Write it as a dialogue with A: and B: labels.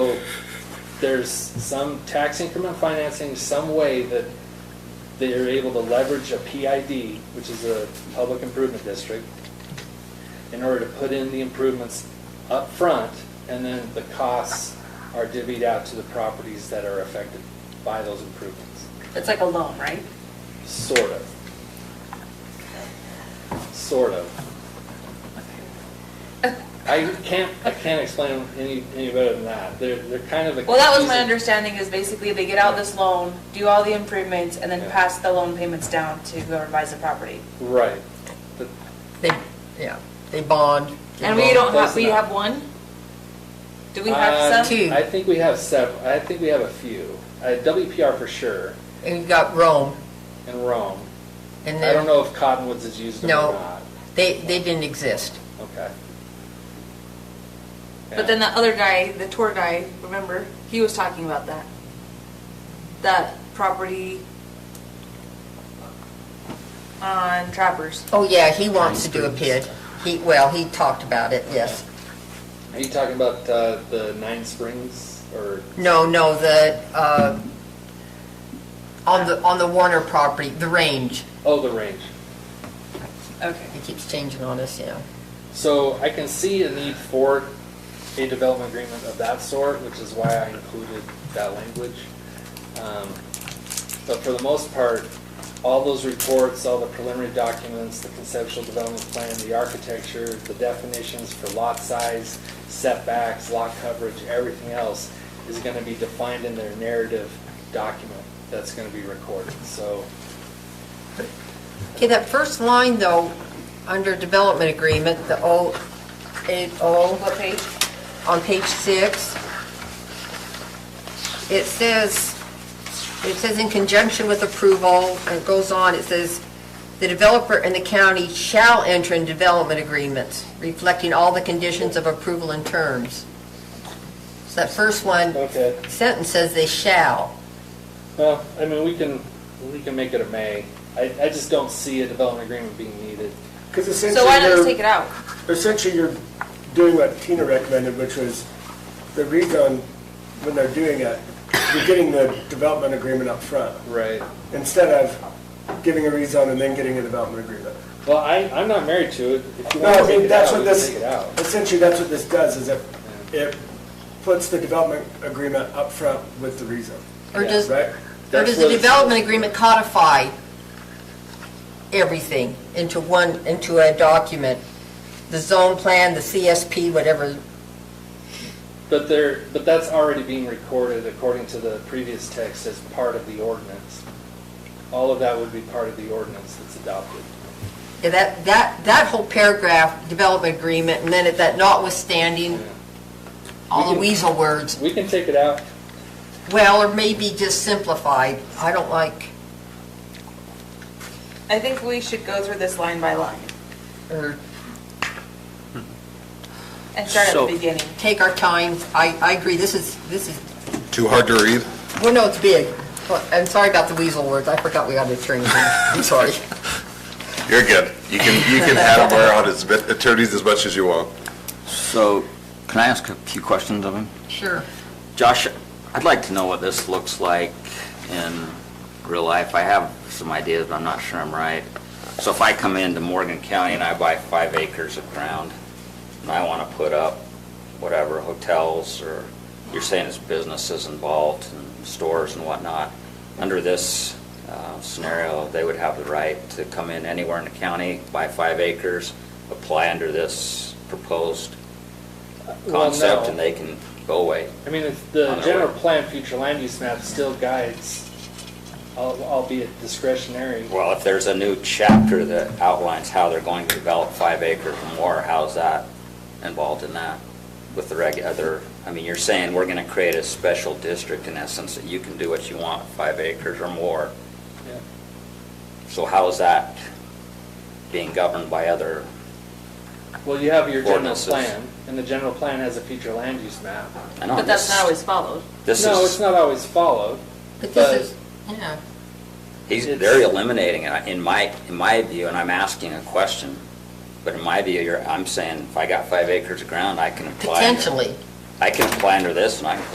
A: So there's some tax increment financing, some way that they're able to leverage a PID, which is a public improvement district, in order to put in the improvements up front, and then the costs are divvied out to the properties that are affected by those improvements,
B: It's like a loan, right?
A: sort of. Sort of. I can't, I can't explain them any, any better than that. They're, they're kind of a.
B: Well, that was my
A: confusing-
B: understanding, is basically they get out this loan, do all the improvements, and then
A: Yeah.
B: pass the loan payments down to whoever buys the property.
A: Right. But
C: They, yeah, they bond. they
B: And we
C: bond.
B: don't
A: close
B: have, we
A: enough.
B: have one? Do we
A: Uh,
B: have some?
C: Two.
A: I think we have several, I think we have a few. Uh, WPR for sure,
C: And you've got Rome,
A: and Rome.
C: and
A: I don't
C: then,
A: know if Cottonwoods has used them
C: No.
A: or not.
C: they, they didn't exist.
A: Okay.
B: But then the other guy, the tour guy, remember, he was talking about that. That property on Trappers.
C: Oh, yeah, he wants to do a PID. He, well, he talked about it, yes.
A: Are you talking about uh, the Nine Springs or?
C: No, no, the, uh, on the, on the Warner property, the range.
A: Oh, the range.
B: Okay.
C: It keeps changing on us, you know.
A: So I can see a need for a development agreement of that sort, which is why I included that language. Um, But for the most part, all those reports, all the preliminary documents, the conceptual development plan, the architecture, the definitions for lot size, setbacks, lot coverage, everything else is going to be defined in their narrative document that's going to be recorded. So
C: Okay, that first line though, under development agreement, the O, eight O.
B: What page?
C: on page six, it says, it says in conjunction with approval, and it goes on, it says, "The developer and the county shall enter in development agreements reflecting all the conditions of approval and terms." So that first one,
A: Okay.
C: sentence says they shall.
A: Well, I mean, we can, we can make it a may. I, I just don't see a development agreement being needed.
D: Because
B: So why not just
D: essentially,
B: take it
D: you're,
B: out?
D: essentially, you're doing what Tina recommended, which was the rezone, when they're doing it, you're getting the development agreement up front,
A: Right.
D: instead of giving a rezone and then getting a development agreement.
A: Well, I, I'm not married to it. If you
D: No,
A: want to
D: I
A: take
D: mean,
A: it
D: that's
A: out,
D: what
A: we can
D: this,
A: take it out.
D: essentially, that's what this does, is it, it puts the development agreement up front with the rezone,
C: Or
A: Yeah,
C: does, or
D: right?
A: That's
C: does
A: what
C: the
A: it's-
C: development agreement codify everything into one, into a document? The zone plan, the CSP, whatever
A: But there, but that's already being recorded according to the previous text as part of the ordinance. All of that would be part of the ordinance that's adopted.
C: Yeah, that, that, that whole paragraph, development agreement, and then it- that notwithstanding, all the weasel words,
A: We can take it out.
C: well, or maybe just simplified, I don't like,
B: I think we should go through this line by line
C: or
B: and start at the
E: So-
B: beginning.
C: take our time, I, I agree, this is, this is,
F: Too hard to read?
C: well, no, it's big. Well, I'm sorry about the weasel words, I forgot we got an attorney, I'm sorry.
F: You're good. You can, you can have them around as bit- attorneys as much as you want.
E: So, can I ask a few questions of him?
C: Sure.
E: Josh, I'd like to know what this looks like in real life. I have some ideas, but I'm not sure I'm right. So if I come into Morgan County and I buy five acres of ground, and I want to put up whatever, hotels, or you're saying it's businesses involved, and stores and whatnot, under this uh, scenario, they would have the right to come in anywhere in the county, buy five acres, apply under this proposed
A: Well,
E: concept,
A: no.
E: and they can go away.
A: I mean, it's- the
E: On our
A: general
E: way.
A: plan future land use map still guides, al- albeit discretionary.
E: Well, if there's a new chapter that outlines how they're going to develop five acres or more, how's that involved in that? With the reg, other, I mean, you're saying we're gonna create a special district in essence, that you can do what you want, five acres or more.
A: Yeah.
E: So how is that being governed by other?
A: Well, you have your general
E: Ordinances.
A: plan, and the general plan has a future land use map.
E: I know
B: But that's
E: this-
B: not always followed.
E: This
A: No, it's
E: is,
A: not always followed.
C: But this is, yeah,
E: he's,
A: it's-
E: they're eliminating it, in my, in my view, and I'm asking a question. But in my view, you're, I'm saying, if I got five acres of ground, I can apply. under-
C: potentially.
E: I can apply under this and I can